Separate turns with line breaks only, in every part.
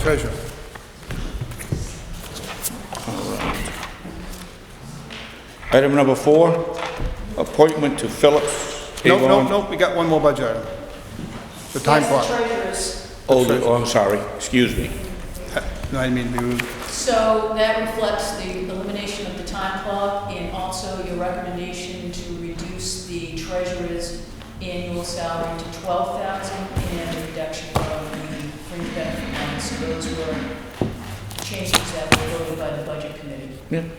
pleasure.
Item number four, appointment to Phillips
Nope, nope,
Avon.
nope, we got one more budget item. The time
That's
clock.
the treasurer's.
Oh, the- oh, I'm sorry, excuse me.
No, I didn't mean to be rude.
So that reflects the elimination of the time clock and also your recommendation to reduce the treasurer's annual salary to twelve thousand and a reduction of the fringe benefit line. So those were changes that were voted by the budget committee.
And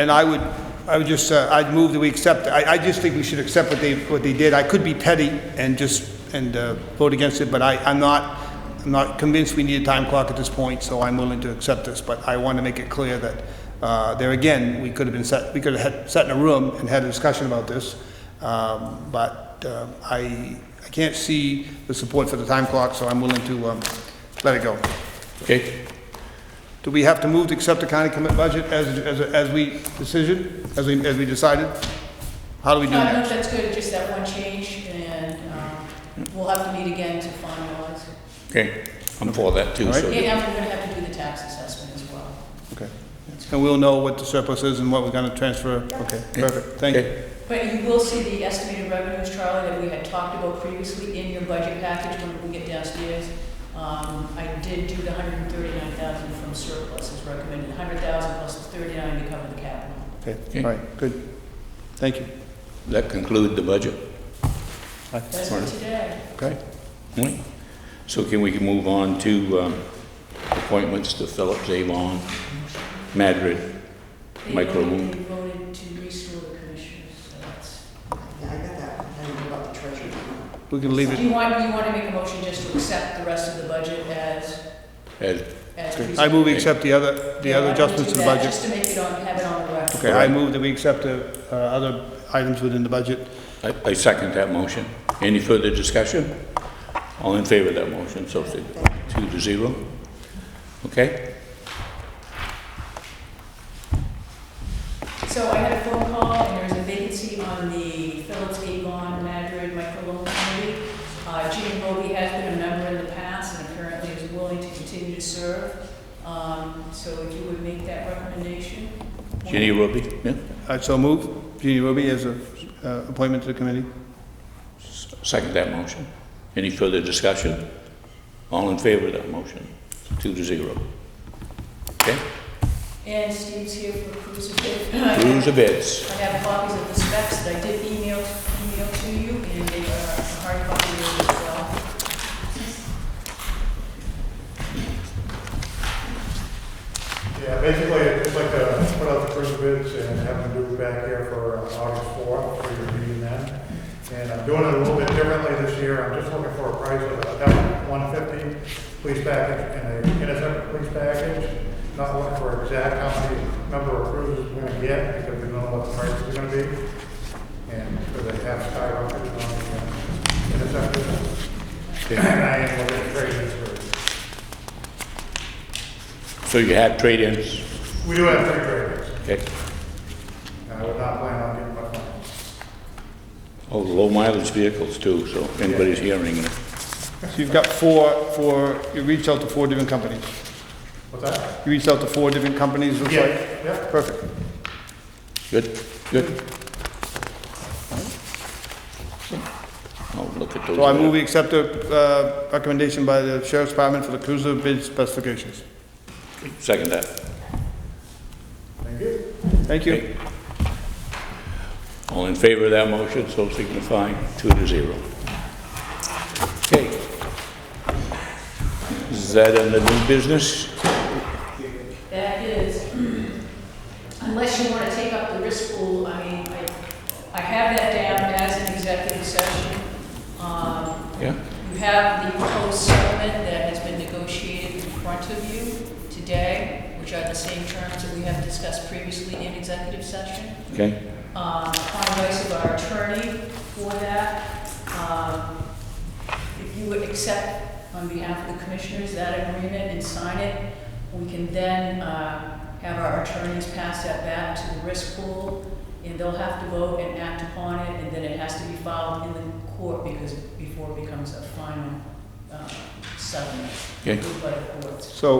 and I would, I would just, uh, I'd move that we accept, I, I just think we should accept what they, what they did. I could be petty and just, and uh, vote against it, but I, I'm not, I'm not convinced we need a time clock at this point, so I'm willing to accept this. But I want to make it clear that, uh, there again, we could have been set, we could have had, sat in a room and had a discussion about this. Um, But uh, I, I can't see the support for the time clock, so I'm willing to um, let it go.
Okay,
Do we have to move to accept the county commit budget as, as, as we decision, as we, as we decided? How do we do
No, I don't know
that?
if that's good, just that one change, and um, we'll have to meet again to finalize.
okay, I'm for that too,
All
so.
And we're gonna have to do the tax assessment as well.
Okay. And we'll know what the surplus is and what we're gonna transfer. Okay, perfect, thank you.
Okay.
But you will see the estimated revenues, Charlie, that we had talked about previously in your budget package when we get downstairs. Um, I did do the hundred and thirty-nine thousand from surplus as recommended, hundred thousand plus the thirty-nine to cover the capital.
Okay, all right, good. Thank you.
That conclude the budget.
That's for today.
Okay.
All right. So can we move on to um, appointments to Phillips Avon, Madrid?
They
Micro
voted-
move.
They voted to restore the commissioners, so that's.
Yeah, I got that, I don't know about the treasure.
We can leave
Do
it.
you want, you want to make a motion just to accept the rest of the budget as,
As-
as presented?
I move we accept the other, the
Yeah,
other
why don't we
adjustments to
do
the
that,
budget.
Just to make it on, have it on the record.
Okay, I move that we accept the, uh, other items within the budget.
I I second that motion. Any further discussion? All in favor of that motion, so say two to zero. Okay?
So I had a phone call, and there's a vacancy on the Phillips Avon Madrid Microloan Committee. Uh, Gene Bobby has been a member in the past and apparently is willing to continue to serve. Um, So if you would make that recommendation.
Ginny Ruby? Yeah?
I so move. Jeannie Ruby as a, uh, appointment to the committee.
Second that motion. Any further discussion? All in favor of that motion? Two to zero. Okay?
And Steve's here for cruise of it.
Rules of bids.
I have copies of the specs that I did email, email to you, and they are a hard copy as well.
Yeah, basically, I'd just like to put out the first bids and have them do it back here for uh, August 4th, for your meeting then. And I'm doing it a little bit differently this year, I'm just looking for a price of about 150 police package and a intercept police package. Not looking for exact how many number of cruises we're gonna get, because we don't know what the price is gonna be. And because they have skyrocketed on the intercept. And I am looking at trading for,
So you have trade-ins?
we do have three traders,
Okay.
and I would not plan on getting much money.
Oh, low mileage vehicles too, so if anybody's hearing it.
So you've got four, four, you reached out to four different companies.
What's that?
You reached out to four different companies, looks like?
Yeah.
Perfect.
Good, good. Oh, look at those.
So I move we accept the uh, recommendation by the Sheriff's Department for the cruiser bid specifications.
Second that.
Thank you.
Thank you.
Okay. All in favor of that motion, so signify, two to zero. Okay. Is that in the new business?
That is, unless you want to take up the risk pool, I mean, I, I have that down as an executive session. Um,
Yeah?
You have the proposed settlement that has been negotiated in front of you today, which are the same terms that we have discussed previously in executive session
Okay,
uh, upon advice of our attorney for that. Um, If you would accept on behalf of the commissioners that agreement and sign it, we can then uh, have our attorneys pass that back to the risk pool, and they'll have to vote and act upon it, and then it has to be filed in the court because, before it becomes a final uh, seven,
Okay.
moved by Forbes.
So